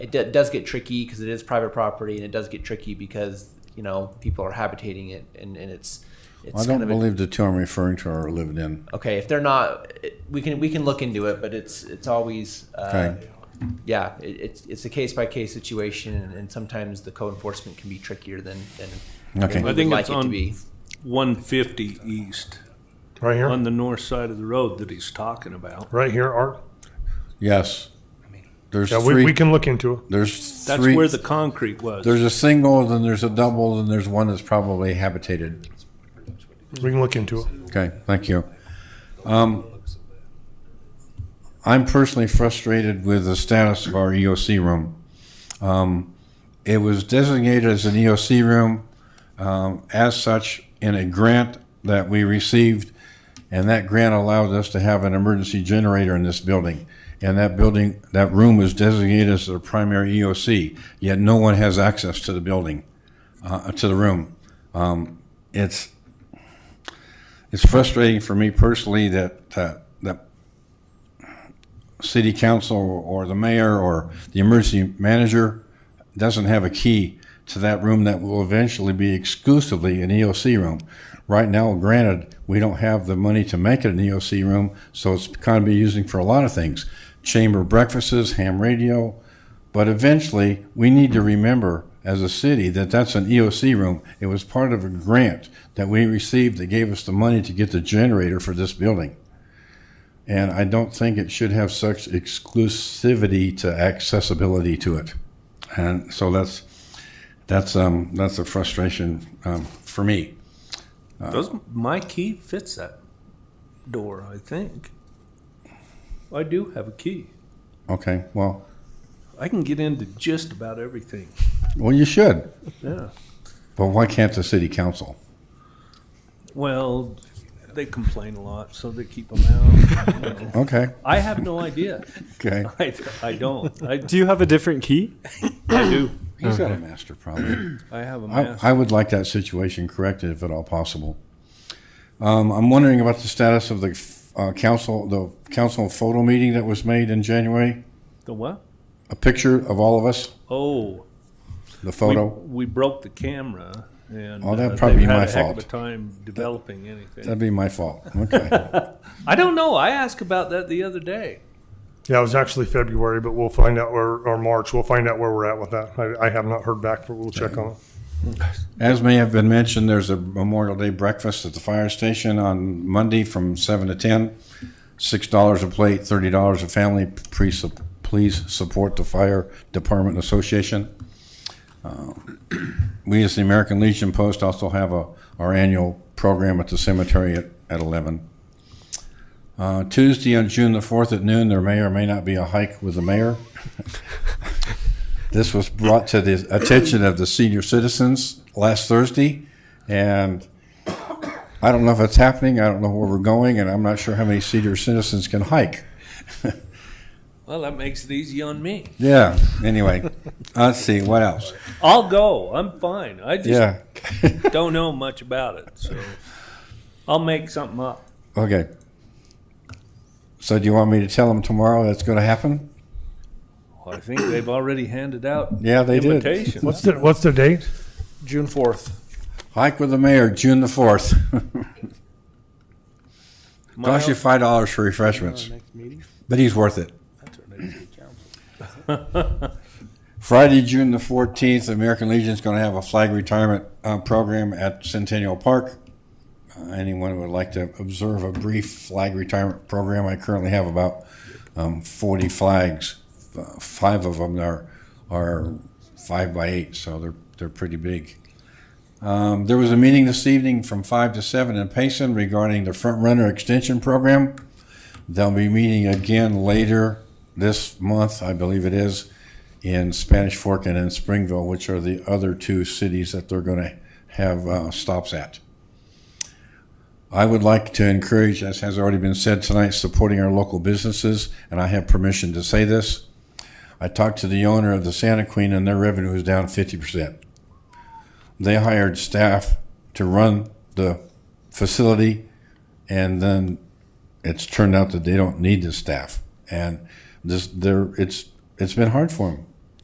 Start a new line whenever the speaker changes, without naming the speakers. it d- does get tricky because it is private property, and it does get tricky because you know people are habitating it, and, and it's it's
I
kind
don't
of
believe the two I'm referring to are lived in.
a, okay if they're not. It, we can we can look into it, but it's it's always uh,
Okay.
yeah it, it's it's a case by case situation, and, and sometimes the code enforcement can be trickier than than than
Okay.
we
I
think
would like it
it's
to
on-
be.
150 east
Right
on
here,
the north side of the road that he's talking about.
right here, Art.
Yes. There's
Yeah,
three.
we, we can look into it.
there's
That's
three.
where the concrete was.
there's a single, then there's a double, then there's one that's probably habitated.
We can look into it.
Okay, thank you. Um, I'm personally frustrated with the status of our EOC room. Um, it was designated as an EOC room um, as such in a grant that we received, and that grant allowed us to have an emergency generator in this building. And that building, that room was designated as a primary EOC, yet no one has access to the building, uh, to the room. Um, it's it's frustrating for me personally that, that, that city council or the mayor or the emergency manager doesn't have a key to that room that will eventually be exclusively an EOC room. Right now, granted, we don't have the money to make it an EOC room, so it's kind of be using for a lot of things. Chamber breakfasts, ham radio, but eventually, we need to remember as a city that that's an EOC room. It was part of a grant that we received that gave us the money to get the generator for this building. And I don't think it should have such exclusivity to accessibility to it. And so that's, that's, um, that's a frustration, um, for me.
Does Uh, my key fits that door? I think. I do have a key.
Okay, well,
I can get into just about everything.
well, you should,
Yeah.
but why can't the city council?
Well, they complain a lot, so they keep them out.
Okay,
I have no idea.
okay.
I, I don't. I,
Do you have a different key?
I do.
He's got a master problem.
I have a mask.
I, I would like that situation corrected if at all possible. Um, I'm wondering about the status of the uh, council, the council photo meeting that was made in January.
the what?
A picture of all of us,
Oh,
the
we,
photo.
we broke the camera, and
Oh, that'd
uh,
probably
they've
be
had
my
a heck of a
fault.
time developing anything.
That'd be my fault. Okay.
I don't know. I asked about that the other day.
Yeah, it was actually February, but we'll find out where, or March, we'll find out where we're at with that. I, I have not heard back, but we'll check on it.
As may have been mentioned, there's a Memorial Day breakfast at the fire station on Monday from seven to ten. Six dollars a plate, thirty dollars a family. Please, please support the fire department association. Uh, We as the American Legion Post also have a, our annual program at the cemetery at, at eleven. Uh, Tuesday on June the fourth at noon, there may or may not be a hike with the mayor. This was brought to the attention of the senior citizens last Thursday, and I don't know if it's happening, I don't know where we're going, and I'm not sure how many senior citizens can hike.
Well, that makes it easy on me.
Yeah, anyway, let's see, what else?
I'll go. I'm fine. I just
Yeah,
don't know much about it, so I'll make something up.
okay. So do you want me to tell them tomorrow that's gonna happen?
I think they've already handed out
Yeah, they did.
invitations.
What's the, what's the date?
June 4th.
Hike with the mayor, June the fourth. Cost you five dollars for refreshments, but he's worth it. Friday, June the fourteenth, American Legion's going to have a flag retirement uh, program at Centennial Park. Uh, anyone who would like to observe a brief flag retirement program, I currently have about um, forty flags. Uh, five of them are are five by eight, so they're they're pretty big. Um, there was a meeting this evening from five to seven in Payson regarding the front runner extension program. They'll be meeting again later this month, I believe it is, in Spanish Fork and in Springville, which are the other two cities that they're going to have uh, stops at. I would like to encourage, as has already been said tonight, supporting our local businesses, and I have permission to say this. I talked to the owner of the Santa Queen, and their revenue is down fifty percent they hired staff to run the facility and then it's turned out that they don't need the staff and this they're it's it's been hard for them